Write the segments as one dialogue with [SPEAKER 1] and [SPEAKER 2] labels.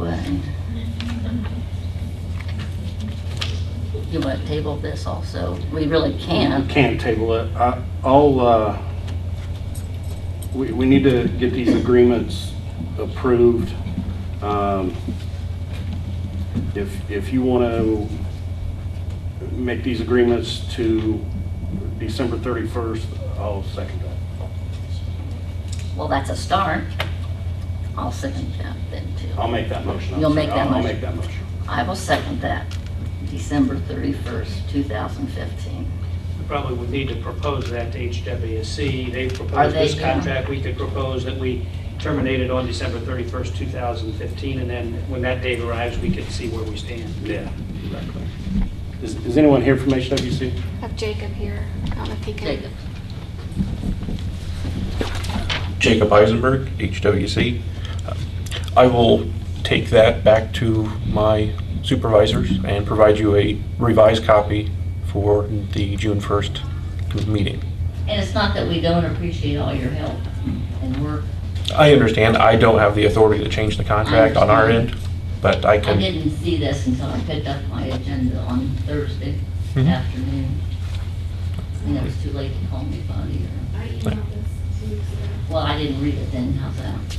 [SPEAKER 1] would. You want to table this also? We really can't.
[SPEAKER 2] Can't table it. I- I'll, uh, we, we need to get these agreements approved. Um, If, if you want to make these agreements to December 31st, I'll second that.
[SPEAKER 1] Well, that's a start. I'll second that then too.
[SPEAKER 2] I'll make that motion. I'm
[SPEAKER 1] You'll
[SPEAKER 2] sorry.
[SPEAKER 1] make that
[SPEAKER 2] I'll- I'll
[SPEAKER 1] motion.
[SPEAKER 2] make that motion.
[SPEAKER 1] I will second that, December 31st, 2015.
[SPEAKER 3] We Probably would need to propose that to HWSC. They proposed
[SPEAKER 1] they
[SPEAKER 3] this
[SPEAKER 1] do?
[SPEAKER 3] contract. We could propose that we terminate it on December 31st, 2015, and then when that date arrives, we could see where we stand.
[SPEAKER 2] Yeah, exactly. Is, is anyone here from HWC?
[SPEAKER 4] have Jacob here. I don't know if he can.
[SPEAKER 1] Jacob?
[SPEAKER 5] Jacob Eisenberg, HWC. Uh, I will take that back to my supervisors and provide you a revised copy for the June 1st meeting.
[SPEAKER 1] And it's not that we don't appreciate all your help and work.
[SPEAKER 5] I understand I don't have the authority to change the contract on our end, but I
[SPEAKER 1] I
[SPEAKER 5] can,
[SPEAKER 1] didn't see this until I picked up my agenda on Thursday
[SPEAKER 5] Mhm.
[SPEAKER 1] afternoon. And it was too late to call me buddy or,
[SPEAKER 6] I emailed this two weeks ago.
[SPEAKER 1] well, I didn't read it then, how's that?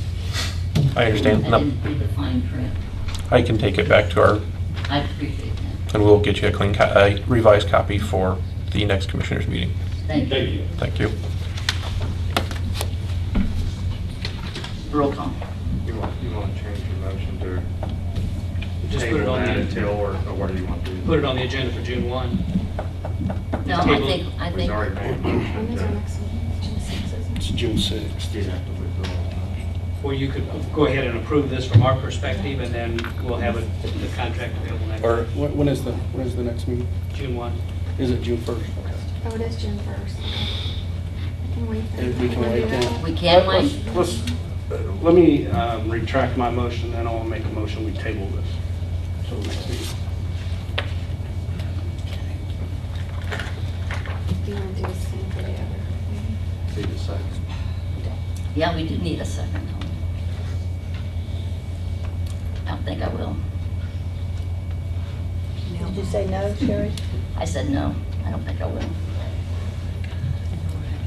[SPEAKER 5] I understand.
[SPEAKER 1] I
[SPEAKER 5] No,
[SPEAKER 1] didn't read the fine print.
[SPEAKER 5] I can take it back to our,
[SPEAKER 1] I appreciate that.
[SPEAKER 5] and we'll get you a clean, co- a revised copy for the next commissioners meeting.
[SPEAKER 1] Thank you.
[SPEAKER 2] you.
[SPEAKER 5] Thank you.
[SPEAKER 1] Roll call.
[SPEAKER 7] You want, you want to change your motion to
[SPEAKER 3] Just put it
[SPEAKER 7] table
[SPEAKER 3] on
[SPEAKER 7] that
[SPEAKER 3] the,
[SPEAKER 7] until, or or what do you want to do?
[SPEAKER 3] put it on the agenda for June 1.
[SPEAKER 1] No, I
[SPEAKER 3] Table.
[SPEAKER 1] think, I
[SPEAKER 7] We've
[SPEAKER 1] think,
[SPEAKER 7] already made a
[SPEAKER 6] When
[SPEAKER 7] motion
[SPEAKER 6] is our
[SPEAKER 7] to
[SPEAKER 6] next meeting? June sixth, isn't it?
[SPEAKER 2] It's June 6th.
[SPEAKER 7] do that to withdraw. the motion.
[SPEAKER 3] Or you could go ahead and approve this from our perspective, and then we'll have it- the contract available next,
[SPEAKER 2] Or, when when is the, when is the next meeting?
[SPEAKER 3] June 1.
[SPEAKER 2] Is it June 1st? Okay.
[SPEAKER 4] Oh, it is June first. Can wait. then.
[SPEAKER 2] If we can
[SPEAKER 4] Wanna
[SPEAKER 2] wait
[SPEAKER 4] do
[SPEAKER 2] then.
[SPEAKER 4] that?
[SPEAKER 1] we can wait.
[SPEAKER 2] Let's- Let's, uh, let me um, retract my motion, then I'll make a motion, we table this. till the next meeting.
[SPEAKER 4] Do you want to do the same for the other? meeting?
[SPEAKER 7] See the second.
[SPEAKER 1] Yeah, we do need a second. though. I don't think I will.
[SPEAKER 8] Did you say no, Sherry?
[SPEAKER 1] I said no, I don't think I will.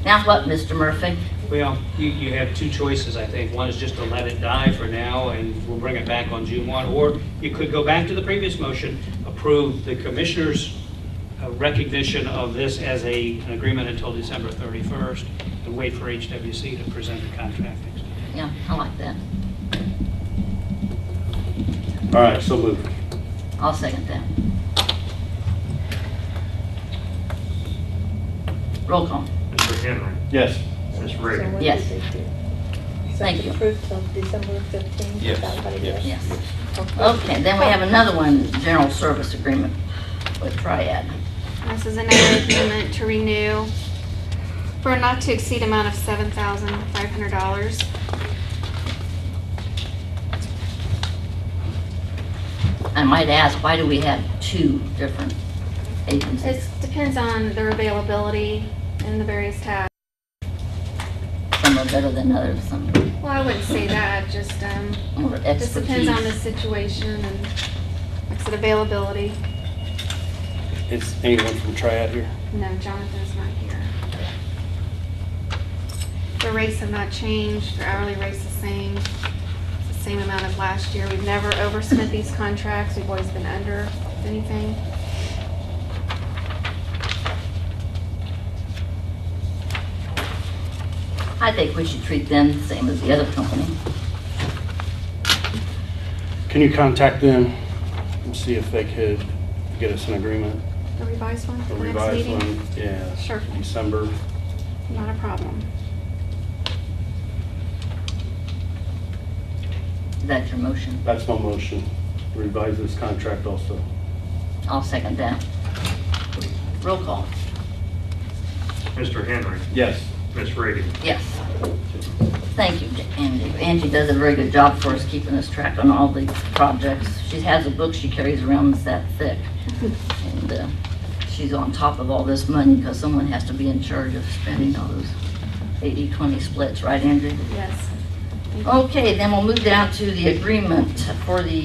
[SPEAKER 1] Now what, Mr. Murphy?
[SPEAKER 3] Well, you, you have two choices, I think. One is just to let it die for now, and we'll bring it back on June 1. Or you could go back to the previous motion, approve the commissioner's uh, recognition of this as a, an agreement until December 31st, and wait for HWC to present the contract.
[SPEAKER 1] Yeah, I like that.
[SPEAKER 2] All right, so moved.
[SPEAKER 1] I'll second that. Roll call.
[SPEAKER 7] Mr. Henry,
[SPEAKER 2] Yes.
[SPEAKER 7] Ms.
[SPEAKER 8] So
[SPEAKER 7] Reagan,
[SPEAKER 8] what
[SPEAKER 1] Yes.
[SPEAKER 8] did they do? So
[SPEAKER 1] Thank
[SPEAKER 8] it's
[SPEAKER 1] you.
[SPEAKER 8] approved till December 15th?
[SPEAKER 5] Yes, yes.
[SPEAKER 1] Yes. Okay, then we have another one, general service agreement with Triad.
[SPEAKER 4] This is another agreement to renew for a not to exceed amount of seven thousand five hundred dollars.
[SPEAKER 1] I might ask, why do we have two different
[SPEAKER 4] It
[SPEAKER 1] agencies?
[SPEAKER 4] depends on their availability and the various tasks.
[SPEAKER 1] Some are better than others, some
[SPEAKER 4] Well, I wouldn't say that, just, um,
[SPEAKER 1] are more
[SPEAKER 4] just depends on the
[SPEAKER 1] expertise.
[SPEAKER 4] situation and, like I said, availability.
[SPEAKER 2] Is anyone from Triad here?
[SPEAKER 4] No, Jonathan's not here. The rates have not changed, the hourly rate's the same, It's the same amount of last year. We've never overspent these contracts, we've always been under anything.
[SPEAKER 1] I think we should treat them the same as the other company.
[SPEAKER 2] Can you contact them and see if they could get us an agreement,
[SPEAKER 4] The revised one for
[SPEAKER 2] a
[SPEAKER 4] the next
[SPEAKER 2] revised
[SPEAKER 4] meeting?
[SPEAKER 2] one? Yeah.
[SPEAKER 4] Sure.
[SPEAKER 2] December.
[SPEAKER 4] Not a problem.
[SPEAKER 1] That's your motion.
[SPEAKER 2] That's my motion. Revise this contract also.
[SPEAKER 1] I'll second that. Roll call.
[SPEAKER 7] Mr. Henry,
[SPEAKER 2] Yes.
[SPEAKER 7] Ms. Reagan,
[SPEAKER 1] Yes. Thank you, Angie. Angie does a very good job for us, keeping us track on all the projects. She has a book she carries around that's that thick. And uh, she's on top of all this money because someone has to be in charge of spending all those 80-20 splits, right, Angie?
[SPEAKER 4] Yes.
[SPEAKER 1] Okay, then we'll move down to the agreement for the